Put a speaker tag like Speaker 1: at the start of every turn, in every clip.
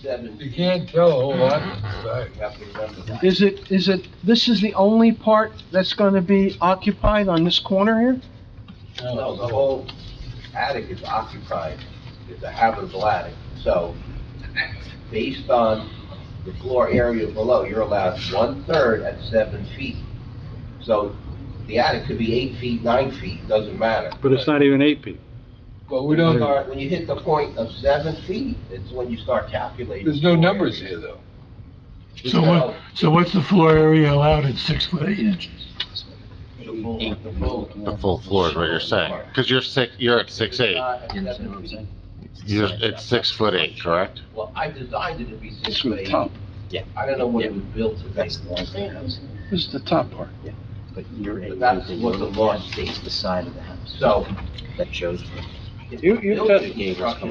Speaker 1: seven.
Speaker 2: You can't tell a whole lot from the
Speaker 1: You
Speaker 2: back.
Speaker 1: have to remember that.
Speaker 3: Is it, is it, this is the only part that's gonna be occupied on this corner here?
Speaker 1: No, the whole attic is occupied, it's a habitable attic, so based on the floor area below, you're allowed one-third at seven feet. So the attic could be eight feet, nine feet, doesn't matter.
Speaker 4: But it's not even eight feet.
Speaker 2: But we don't,
Speaker 1: Start- When you hit the point of seven feet, it's when you start calculating.
Speaker 2: there's no numbers here, though.
Speaker 5: So what, so what's the floor area allowed at six foot eight inches?
Speaker 1: The full- the full-
Speaker 6: The full floor is what you're saying, because you're six, you're at six eight,
Speaker 1: Uh, at seven feet.
Speaker 6: you're, it's six foot eight, correct?
Speaker 1: Well, I designed it to be six
Speaker 3: It's from
Speaker 1: foot
Speaker 3: the
Speaker 1: eight.
Speaker 3: top.
Speaker 1: I don't know what it was built to be,
Speaker 7: That's the one thing,
Speaker 3: This is the top part.
Speaker 7: but you're.
Speaker 1: but that's what the law states.
Speaker 7: The side of the house,
Speaker 1: So.
Speaker 7: that shows
Speaker 1: if
Speaker 4: You-
Speaker 1: the
Speaker 4: you
Speaker 1: building
Speaker 4: test-
Speaker 1: construction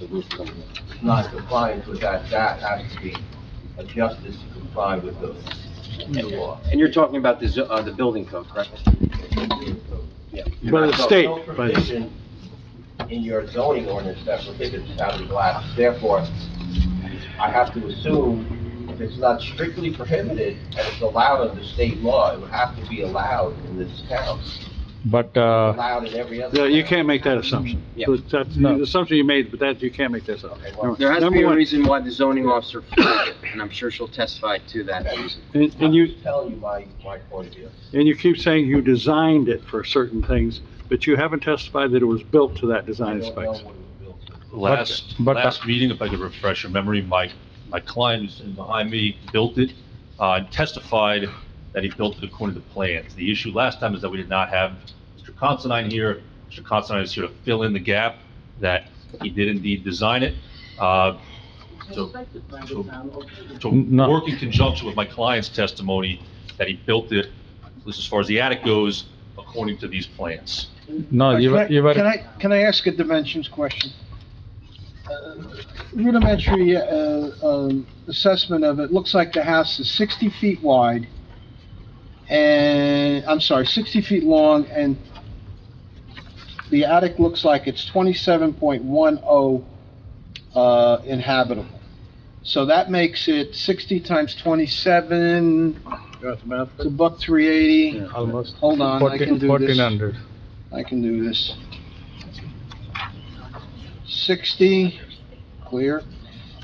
Speaker 7: the roof coming in.
Speaker 1: is Not compliant with that, that has to be adjusted to comply with the the law.
Speaker 8: And you're talking about the, zo- uh, the building code, correct?
Speaker 4: By the
Speaker 1: So,
Speaker 4: state,
Speaker 1: no
Speaker 4: by the
Speaker 1: provision In your zoning ordinance that prohibits having glass, therefore, I have to assume if it's not strictly prohibited and it's allowed under state law, it would have to be allowed in this town,
Speaker 4: But, uh,
Speaker 1: allowed in every other.
Speaker 4: no, you
Speaker 1: town.
Speaker 4: can't make that assumption.
Speaker 8: Yeah.
Speaker 4: That's the assumption you made, but that, you can't make that up.
Speaker 1: Okay, well,
Speaker 8: There has to
Speaker 4: Number
Speaker 8: be a
Speaker 4: one,
Speaker 8: reason why the zoning officer, flagged it, and I'm sure she'll testify to that reason.
Speaker 4: And
Speaker 1: I'm
Speaker 4: and you,
Speaker 1: just telling you my, my point of view.
Speaker 4: And you keep saying you designed it for certain things, but you haven't testified that it was built to that
Speaker 1: I
Speaker 4: design
Speaker 1: don't know
Speaker 4: specs.
Speaker 1: what it was built to.
Speaker 9: Last,
Speaker 4: but-
Speaker 9: last meeting, if I could refresh your memory, my, my client who's sitting behind me built it, uh, and testified that he built it according to plans. The issue last time is that we did not have Mr. Considine here. Mr. Considine is here to fill in the gap that he did indeed design it. Uh, so- so- So
Speaker 4: No.
Speaker 9: work in conjunction with my client's testimony that he built it, at least as far as the attic goes, according to these plans.
Speaker 2: Oh,
Speaker 4: No,
Speaker 3: Can I- Can I, can I ask a dimensions question? Uh, Rudimentary, uh, um, assessment of it, looks like the house is sixty feet wide and, I'm sorry, sixty feet long and the attic looks like it's twenty-seven point one oh, uh, inhabitable. So that makes it sixty times twenty-seven, it's a buck three eighty.
Speaker 4: Almost.
Speaker 3: Hold on, I can do this.
Speaker 2: Fourteen hundred.
Speaker 3: I can do this. 60, clear,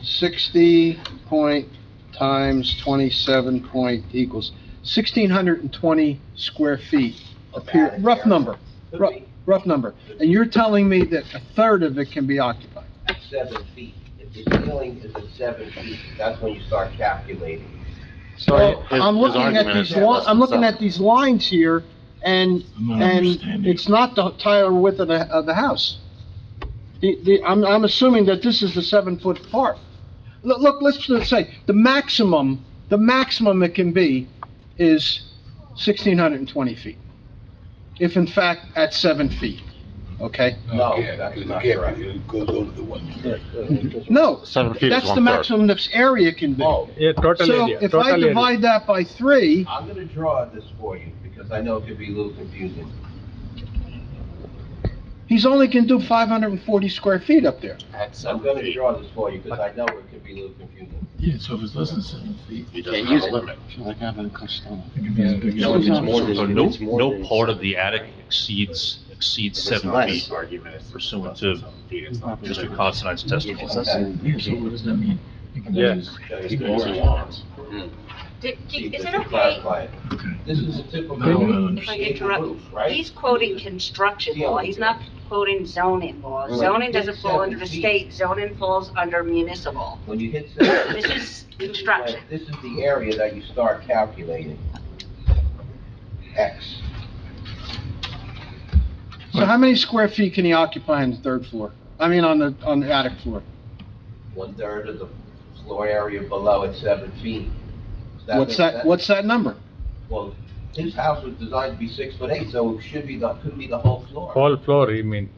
Speaker 3: 60 point times 27 point equals 1,620 square feet. Appear-
Speaker 1: About it,
Speaker 3: Rough
Speaker 1: yeah.
Speaker 3: number,
Speaker 1: Could
Speaker 3: rough,
Speaker 1: be
Speaker 3: rough number. And you're telling me that a third of it can be occupied?
Speaker 1: Seven feet. If the ceiling is at seven feet, that's when you start calculating.
Speaker 3: So
Speaker 6: his-
Speaker 3: I'm
Speaker 6: his
Speaker 3: looking at
Speaker 6: argument
Speaker 3: these,
Speaker 6: is
Speaker 3: li-
Speaker 6: less than
Speaker 3: I'm looking
Speaker 6: seven.
Speaker 3: at these lines here, and
Speaker 5: I'm not
Speaker 3: and
Speaker 5: understanding.
Speaker 3: it's not the entire width of the, of the house. The, the, I'm, I'm assuming that this is the seven-foot part. Look, look, let's just say, the maximum, the maximum it can be is sixteen hundred and twenty feet. If in fact, at seven feet, okay?
Speaker 1: No,
Speaker 2: Okay,
Speaker 1: that's
Speaker 2: because
Speaker 1: not
Speaker 2: you can't,
Speaker 1: correct.
Speaker 2: because it goes over the one.
Speaker 3: No,
Speaker 6: Seven feet is
Speaker 3: that's the
Speaker 6: one third.
Speaker 3: maximum this area can be.
Speaker 1: Oh,
Speaker 4: Yeah, total
Speaker 3: So
Speaker 4: area,
Speaker 3: if I
Speaker 4: total area.
Speaker 3: divide that by three,
Speaker 1: I'm gonna draw this for you because I know it could be a little confusing.
Speaker 3: he's only can do five hundred and forty square feet up there.
Speaker 6: At
Speaker 1: I'm gonna draw this for you because I know it could be a little confusing.
Speaker 5: Yeah, so if it's less than seven feet,
Speaker 6: He
Speaker 8: Can't
Speaker 6: doesn't
Speaker 8: use
Speaker 6: have a
Speaker 8: it.
Speaker 6: limit.
Speaker 5: it could be as big as.
Speaker 3: No, it's not.
Speaker 9: So no, no part of the attic exceeds, exceeds seven feet pursuant to Mr. Considine's testimony.
Speaker 7: It's less than-
Speaker 5: Yeah, so what does that mean? It can be
Speaker 4: Yeah.
Speaker 5: as-
Speaker 1: Show you
Speaker 5: Keep
Speaker 1: the drawing.
Speaker 5: it.
Speaker 10: Did-
Speaker 1: See,
Speaker 10: did- Is
Speaker 1: just
Speaker 10: it
Speaker 1: to
Speaker 10: okay
Speaker 1: clarify it. This is a typical.
Speaker 5: No, no, no.
Speaker 10: if I interrupt?
Speaker 1: Right?
Speaker 10: He's quoting construction law, he's not quoting zoning law. Zoning doesn't fall under the state, zoning falls under municipal.
Speaker 1: When you hit seven.
Speaker 10: This is
Speaker 1: this is
Speaker 10: construction.
Speaker 1: when- This is the area that you start calculating. X.
Speaker 3: So how many square feet can he occupy on the third floor? I mean, on the, on the attic floor?
Speaker 1: one-third of the floor area below at seven feet. Is
Speaker 3: What's that, what's that number?
Speaker 1: Well, his house was designed to be six foot eight, so it should be, the could be the whole floor.
Speaker 11: whole floor, you mean?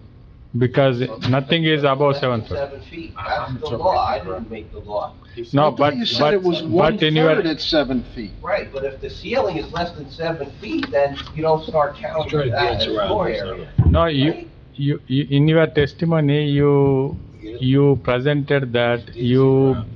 Speaker 11: Because nothing is above seven foot.
Speaker 1: Seven feet, that's the law, I didn't make the law.
Speaker 11: No,
Speaker 3: I thought
Speaker 11: but,
Speaker 3: you said
Speaker 11: but,
Speaker 3: it was
Speaker 11: but in your,
Speaker 3: one-third at seven feet.
Speaker 1: Right, but if the ceiling is less than seven feet, then you don't start
Speaker 2: Try to
Speaker 1: counting that
Speaker 2: dance
Speaker 1: as
Speaker 2: around
Speaker 1: floor
Speaker 2: this,
Speaker 1: area.
Speaker 11: no, you, you, you- in your testimony, you, you presented that you